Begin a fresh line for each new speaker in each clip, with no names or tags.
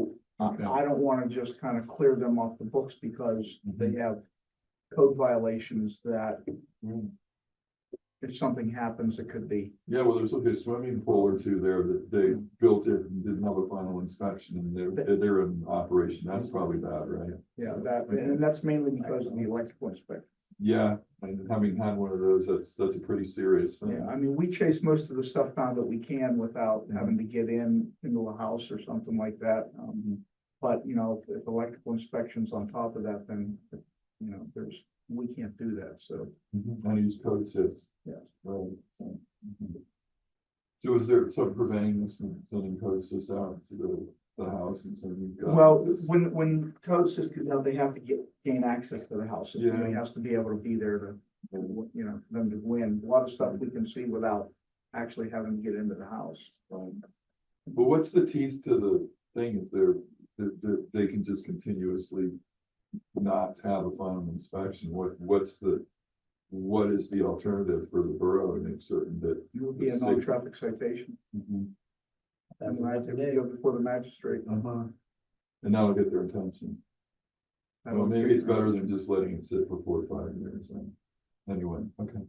I
Okay.
uh, I don't want to just kind of clear them off the books because they have code violations that if something happens, it could be.
Mm. Yeah, well, there's like a swimming pool or two there that they built it and didn't have a final inspection and they're, they're in operation. That's probably bad, right?
Yeah, that, and that's mainly because of the electrical inspector.
Yeah, and having had one of those, that's, that's a pretty serious
Yeah,
thing.
I mean, we chase most of the stuff down that we can without having to get in into a house or something like that. Um, but, you know, if if electrical inspections on top of that, then, you know, there's, we can't do that, so.
Mhm, And use code says.
Yes.
Right. so, mhm. So is there, so preventing this from sending code sys out to the, the house and uh, saying we've got.
Well,
this-
when, when code says, you know, they have to get, gain access to the house, it
Yeah.
has to be able to be there to, you know, for them to win. A lot of stuff we can see without actually having to get into the house.
Um, But what's the teeth to the thing if they're, that, that they can just continuously not have a final inspection? What, what's the, what is the alternative for the borough to make certain that?
It would be a
Let's see.
non-traffic citation. Mm-hmm.
That's
And I
what
have to
they
go before the magistrate.
Uh-huh. And that'll get their attention. Well, maybe it's better than just letting it sit for four or five years. and- Anyway, okay.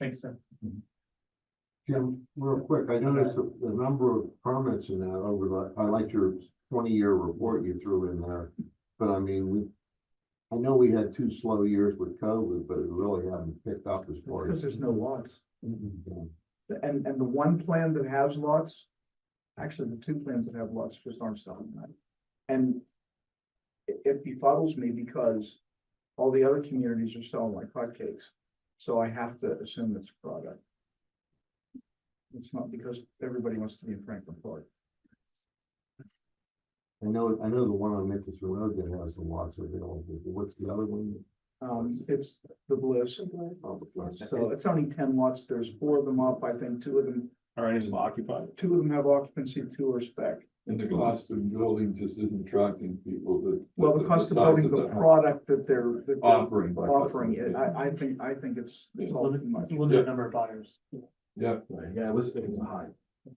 Thanks, Tim.
Jim, real quick, I noticed the, the number of permits in that over the, I like your twenty-year report you threw in there. But I mean, we, I know we had two slow years with COVID, but it really hasn't picked up as far
Because
as.
there's no lots.
Mm-hmm.
Mhm.
And, and the one plan that has lots, actually, the two plans that have lots just aren't selling that. And it, it befuddles me because all the other communities are selling like hotcakes. So I have to assume it's a product. It's not because everybody wants to be in Franklin Park.
I know, I know the one on Memphis Road that has the lots available, but what's the other one?
Um, it's the bliss.
Oh, that's-
So it's only ten lots. There's four of them up. I think two of them,
Are any of them occupied?
two of them have occupancy, two are spec.
And the cost of building just isn't attracting people that.
Well, the cost of
size
building the Um,
house
product that they're, that they're
Offering. by
offering,
customers.
it, I, I think, I think it's, it's all too much.
It's a limited number of buyers.
Yeah,
Yeah, it was, it was a high.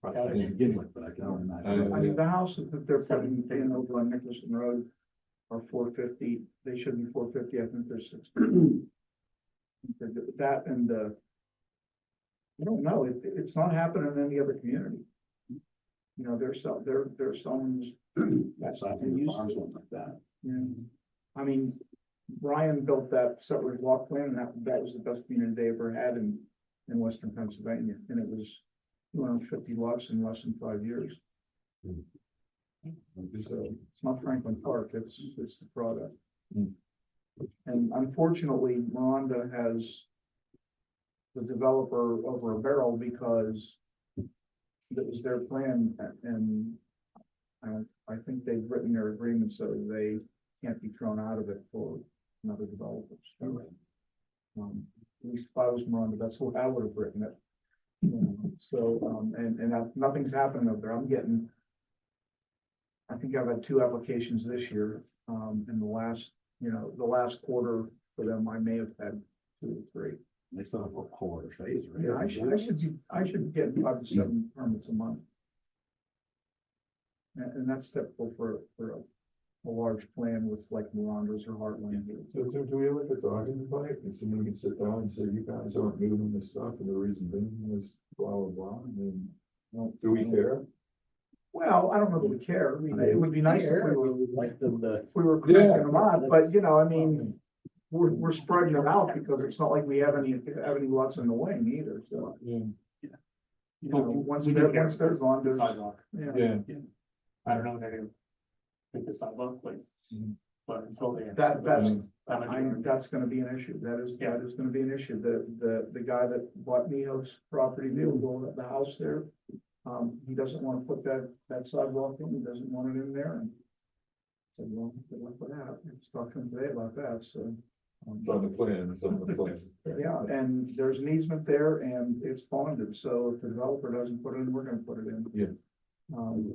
price tag to begin with, but I can only imagine.
I mean, the houses that they're putting
Seven
in over on Nicholson Road are four fifty, they should be four fifty, I think they're six. That and the, I don't know, it, it's not happening in any other community. You know, there's some, there, there's some,
That's not in the farms, one like that.
you know, I mean, Brian built that separate block plan, and that, that was the best community they ever had in, in western Pennsylvania, and it was two hundred and fifty lots in less than five years. So uh, it's not Franklin Park, it's, it's the product.
Hmm.
And unfortunately, Rhonda has the developer over a barrel because that was their plan a- and I, I think they've written their agreement so they can't be thrown out of it for another developers. Um, at least if I was Rhonda, that's what I would have written it. You know, So, um, and, and I- nothing's happened over there. I'm getting I think I've had two applications this year, um, in the last, you know, the last quarter for them, I may have had two or three.
They still have a whole other phase, right?
Yeah, I should, I should, be- I should get five to seven permits a month. And, and that's typical for, for a, a large plan with like Miranda's or Heartland.
So do, do we have like a dog in the fight and someone can sit down and say, you guys aren't moving this stuff and the reason being is blah, blah, blah, and then. Do we care?
Well, I don't know that we care. I mean, it would be nice if we were,
would like them to.
if we were cracking them out, but you know, I mean, we're, we're spreading it out because it's not like we have any, have any lots in the wing either, so.
Yeah.
You know, once they're, once they're gone, there's,
Sidewalk.
yeah.
Yeah.
I don't know when they're gonna take the sidewalk place,
Mm-hmm.
Mhm.
but until they.
That, that's, I,
I'm-
that's gonna be an issue, that is, that is gonna be an issue, the, the, the guy that bought Neo's property, they were building the house there. Um, he doesn't wanna put that, that sidewalk in, he doesn't want it in there, and. Said, well, good luck with that, it's talking today about that, so. um,
It's on the plan, it's on the plan.
Yeah, and there's an easement there, and it's bonded, so if the developer doesn't put it in, we're gonna put it in.
Yeah.
Um,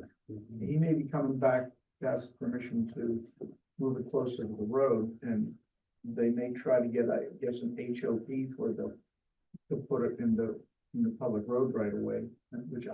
he may be coming back, to ask permission to move it closer to the road, and they may try to get, I guess, an HOP for the, to put it in the, in the public road right away, which